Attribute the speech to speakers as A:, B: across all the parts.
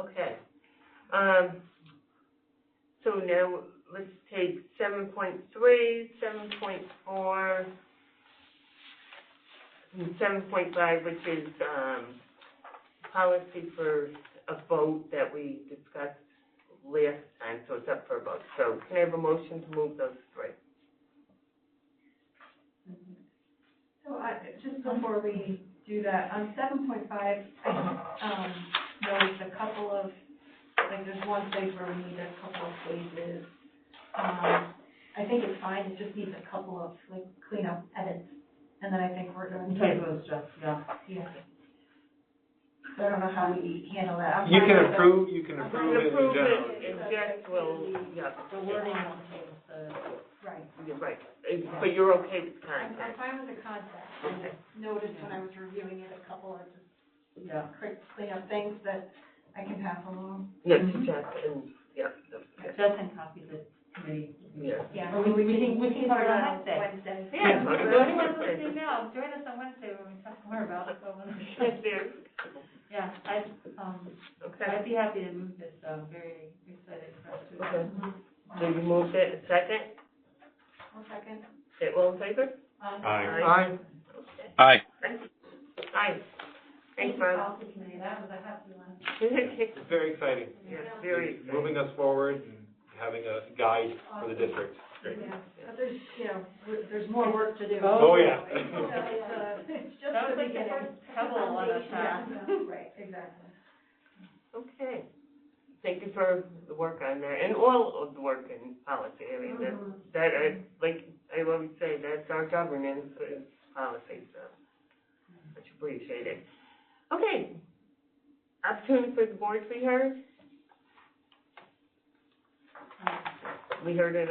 A: Okay. Um, so now, let's take seven point three, seven point four, and seven point five, which is, um, policy for a vote that we discussed last time, so it's up for a vote. So can I have a motion to move those three?
B: So I, just before we do that, on seven point five, I, um, noticed a couple of, like, there's one place where we need a couple of phases. Um, I think it's fine, it just needs a couple of, like, cleanup edits, and then I think we're going to. Yeah. So I don't know how we handle that. I'm
C: You
B: fine
C: can
B: with the-
C: approve, you can
B: I'm
C: approve it in
A: Approve
C: general.
A: it, and just will, yeah,
D: The wording on the table says,
B: Right.
A: you're right. Uh, But you're okay with
B: I'm, I'm
A: content?
B: fine with the concept. I just noticed when I was reviewing it, a couple of just
D: yeah,
B: quick cleanup things that I can pass along.
A: Yes,
D: Mhm.
A: just, and, yeah, okay,
D: Justin copied the committee.
A: yeah.
B: Yeah,
D: Well, we- we can- we can
B: start
D: do it on
B: on
D: Wednesday.
B: Wednesday.
D: Yeah,
A: okay.
D: so anyone listening now, join us on Wednesday when we talk more about it, so,
A: Yes, there.
D: yeah, I, um,
A: Okay,
D: I'd be happy to move this, I'm very excited for us to.
A: okay. So you moved it in second,
B: One second.
A: it all in favor?
B: Um,
C: Aye.
A: Aye.
E: Aye.
A: Aye. Thanks, Bob.
D: Policy committee, that was a happy one.
A: Yes,
C: It's very exciting.
A: very
C: It's
A: exciting.
C: Moving us forward and having a guide for the district. Great.
B: Yeah, but there's, you know, we're- there's more work to do.
D: Oh,
C: Oh, yeah.
B: So it's, uh, it's just
D: That
B: the
D: was like the
B: beginning.
D: first couple of one of
B: Yeah,
D: that.
B: yeah, Right, exactly.
A: Okay. Thank you for the work on that, and all of the work in policy, I mean, that, that, I- like, I always say, that's our governance is policy, so much appreciated. Okay. Opportunity for the board to be heard? We heard it.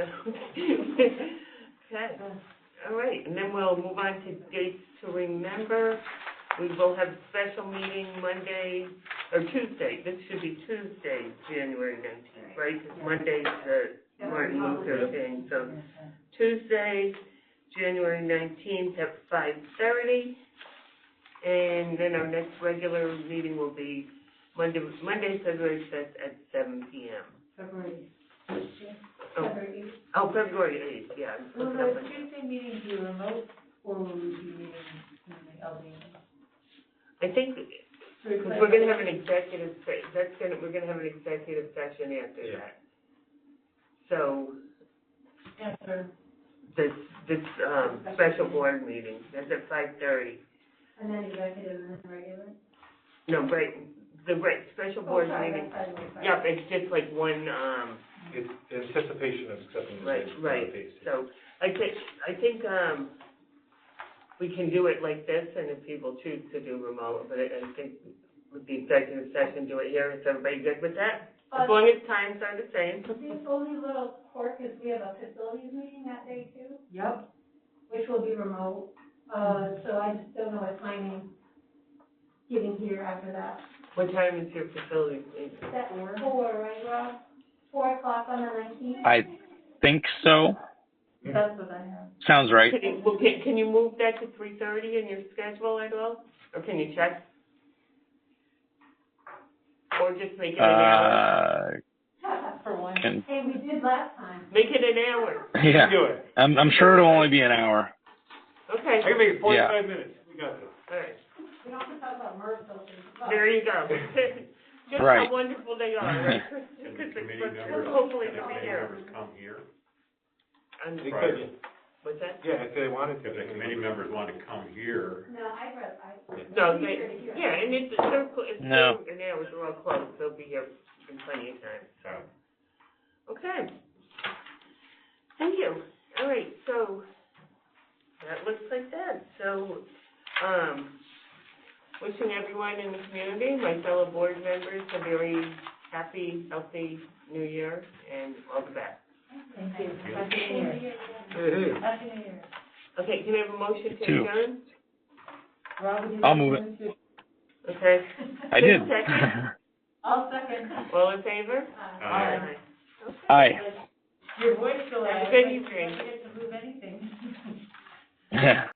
A: Okay, all right, and then we'll move on to dates to remember. We will have a special meeting Monday, or Tuesday, this should be Tuesday, January nineteenth, right? Because Monday's the Martin Luther thing, so Tuesday, January nineteenth at five thirty. And then our next regular meeting will be Monday, Monday, February fifth at seven P M.
D: February.
A: Oh, oh, February eighth, yeah. I'm
D: Will
A: looking up
D: the
A: at-
D: Tuesday meeting be remote or will we be meeting in the LD?
A: I think, because we're gonna have an executive, se- that's gonna, we're gonna have an executive session after
C: Yeah.
A: that. So,
D: After.
A: this, this, um, special board meeting, that's at five thirty.
D: And then executive and then regular?
A: No, right, the, right, special board
B: Oh,
A: meeting. Yep, it's just like one, um,
C: It's anticipation of accepting the
A: Right, right.
C: district.
A: so, I think, I think, um, we can do it like this, and if people choose to do remote, but I, I think with the executive session, do it here, is everybody good with that? As
B: Um,
A: long as times are the same.
F: The only little quirk is we have a facilities meeting that day too,
D: Yep,
F: which will be remote. Uh, so I just don't know what timing getting here after that.
A: What time is your facility meeting?
F: That's four, right, Rob? Four o'clock on the nineteenth?
A: Uh,
E: I think so.
D: that's what I have.
E: Sounds right.
A: Can you, well, can, can you move that to three thirty in your schedule at all, or can you check? Or just make it an hour,
E: Uh,
D: For one.
E: can,
F: Hey, we did last time.
A: make it an hour,
E: yeah.
C: Do it.
E: I'm, I'm sure it'll only be an hour.
A: okay,
C: I can make it forty-five minutes. We got this.
A: all right.
F: We don't have to talk about MERS filters.
A: There you go. Just how
E: Right.
A: wonderful they are, right? Because hopefully every year.
G: come here?
A: And
C: They
G: Right.
C: could,
A: what's that?
C: yeah, if they wanted to.
G: If the committee members want to come here,
F: No, I read, I.
A: No,
F: it's
A: they,
F: easier to hear.
A: yeah, and it's, they're, clo- it's,
E: No.
A: still- and hours are all close, they'll be here in plenty of time, so. Okay. Thank you. All right, so that looks like that. So, um, wishing everyone in the community, my fellow board members, a very happy, healthy new year and all the best.
D: Thank you. Happy New Year.
C: It is.
D: Happy New Year.
A: Okay, can I have a motion to
E: Two.
A: adjourn?
D: Rob, would you
E: I'll
D: like to
E: move it.
D: to-
A: Okay,
E: I did.
D: I'll second.
A: all in favor?
G: uh,
D: Aye.
E: Aye.
D: Your voice delay.
A: Have a good evening.
D: I forget to move anything.